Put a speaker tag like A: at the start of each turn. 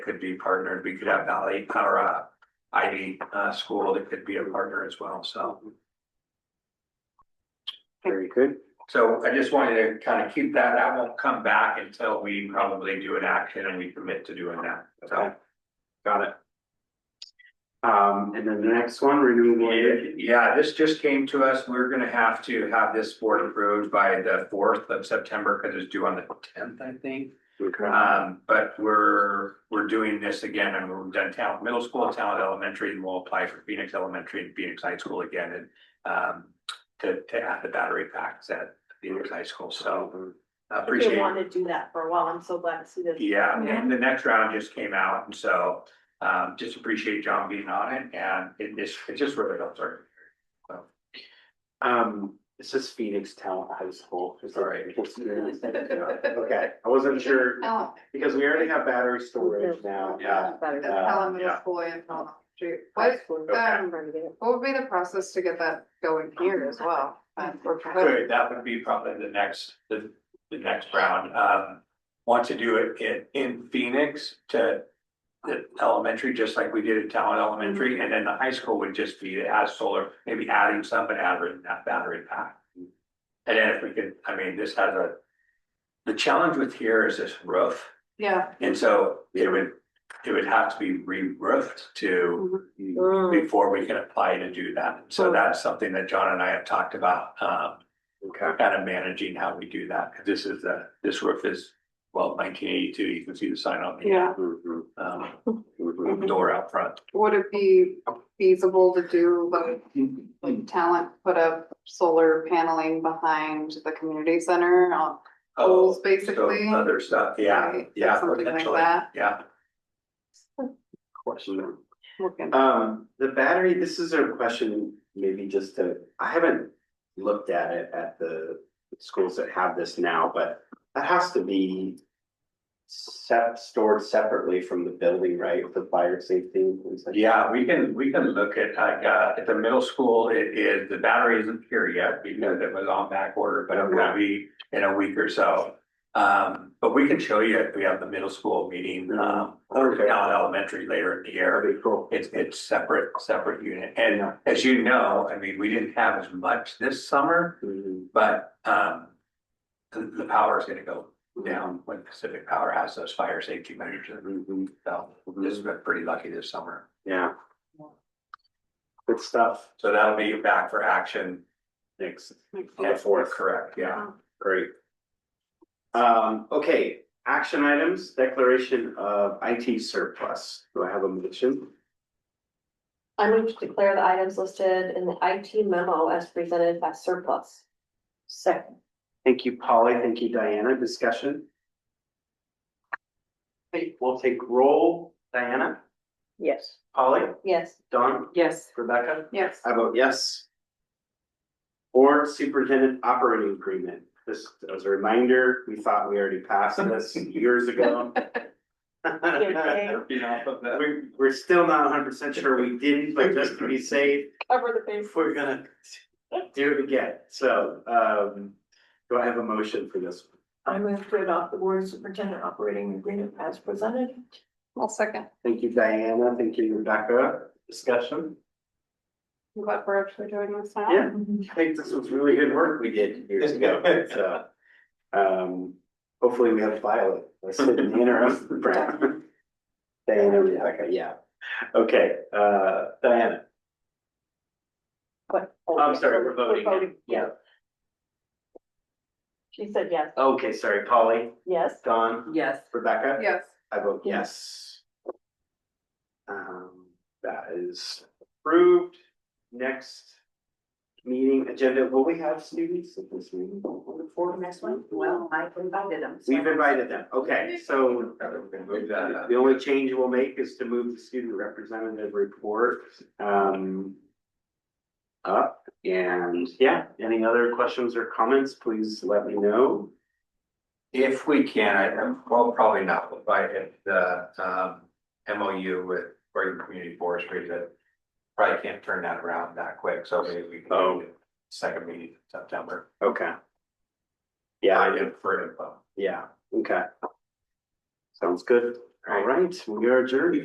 A: could be partnered. We could have Valley or uh Ivy uh school that could be a partner as well, so.
B: Very good.
A: So I just wanted to kind of keep that, that won't come back until we probably do an action and we commit to doing that, so.
B: Got it. Um, and then the next one, renewable energy.
A: Yeah, this just came to us, we're gonna have to have this board approved by the fourth of September, because it's due on the tenth, I think.
B: Uh,
A: Um, but we're, we're doing this again, and we've done talent middle school, talent elementary, and we'll apply for Phoenix Elementary and Phoenix High School again, and um, to, to add the battery packs at Phoenix High School, so I appreciate
C: They
A: it.
C: wanted to do that for a while. I'm so glad to see this.
A: Yeah, and the next round just came out, and so, um, just appreciate John being on it, and it just, it just really helps our.
B: Um, this is Phoenix Talent High School. Is that-
A: Sorry.
B: Okay, I wasn't sure,
D: Oh,
B: because we already have battery storage now.
A: Yeah.
D: that's
B: Uh,
D: Pelham Middle
A: yeah.
D: School and Pelham Elementary.
C: High
D: What,
C: school.
A: Okay.
D: um, what would be the process to get that going here as well? Um, for-
A: Good, that would be probably the next, the, the next round, um, want to do it in, in Phoenix to. The elementary, just like we did at Talon Elementary, and then the high school would just be it has solar, maybe adding some, but adding that battery pack. And then if we could, I mean, this has a. The challenge with here is this roof.
D: Yeah,
A: And so it would, it would have to be re-roofed to,
C: Mm.
A: before we can apply to do that. So
C: Mm.
A: that's something that John and I have talked about, um,
B: Okay,
A: kind of managing how we do that. 'Cause This is the, this roof is, well, nineteen eighty-two, you can see the sign on the,
D: yeah.
B: Mhm,
A: um,
B: mhm.
A: door out front.
D: Would it be feasible to do like, like talent, put up solar paneling behind the community center on poles
A: Oh, so
D: basically?
A: other stuff, yeah,
D: Right,
A: yeah,
D: something like
A: potentially,
D: that.
A: yeah.
B: Question.
D: Looking-
B: Um, the battery, this is a question maybe just to, I haven't looked at it at the schools that have this now, but that has to be set, stored separately from the building, right, for fire safety? and things like that.
A: Yeah, we can, we can look at, like, uh, at the middle school, it is, the battery isn't here yet because it was on back order, but it will be in a week or so. Um, but we can show you if we have the middle school meeting, um, or
B: Okay.
A: down elementary later in the year.
B: That'd be cool.
A: It's, it's separate, separate unit. And
B: Yeah.
A: as you know, I mean, we didn't have as much this summer,
B: Mhm.
A: but, um, the, the power is gonna go down when Pacific Power has those fire safety measures.
B: Mhm.
A: So this has been pretty lucky this summer.
B: Yeah. Good stuff.
A: So that'll be back for action.
B: Thanks.
D: Makes
B: On the fourth.
A: Correct, yeah.
B: Great. Um, okay, action items, declaration of IT surplus. Do I have a motion?
C: I move to declare the items listed in the IT memo as presented as surplus. Second.
B: Thank you, Polly. Thank you, Diana. Discussion? Hey, we'll take roll. Diana,
C: Yes.
B: Polly,
C: Yes.
B: Don,
D: Yes.
B: Rebecca.
D: Yes.
B: I vote yes. Board Superintendent Operating Agreement. This, as a reminder, we thought we already passed this years ago.
C: Okay.
B: We're, we're still not hundred percent sure we didn't, but just to be safe,
C: Cover the
B: if we're gonna do it again. So, um, do I have a motion for this?
C: I move to adopt the board superintendent operating agreement as presented.
D: Well, second.
B: Thank you, Diana. Thank you, Rebecca. Discussion?
D: I'm glad we're actually doing this now.
B: Yeah, I think this was really good work we did years ago, so. Um, hopefully we have Violet, let's sit in the interim. Brad. Diana, Rebecca, yeah. Okay, uh, Diana,
C: But.
B: I'm sorry, we're voting.
C: Yeah. She said yes.
B: Okay, sorry, Polly,
C: Yes.
B: Don,
C: Yes.
B: Rebecca?
D: Yes.
B: I vote yes. Um, that is approved. Next meeting agenda, will we have students at this meeting? For
C: Next one, well, I invited them. so-
B: We've invited them, okay, so
A: Move that up.
B: the only change we'll make is to move the student representative report, um, up, and yeah, any other questions or comments, please let me know.
A: If we can, I, um, well, probably not, but by if the, um, MOU with Oregon Community Forestry that probably can't turn that around that quick, so maybe we can go to second meeting in September.
B: Okay. Yeah.
A: I did for info.
B: Yeah, okay. Sounds good. All right, we are adjourned.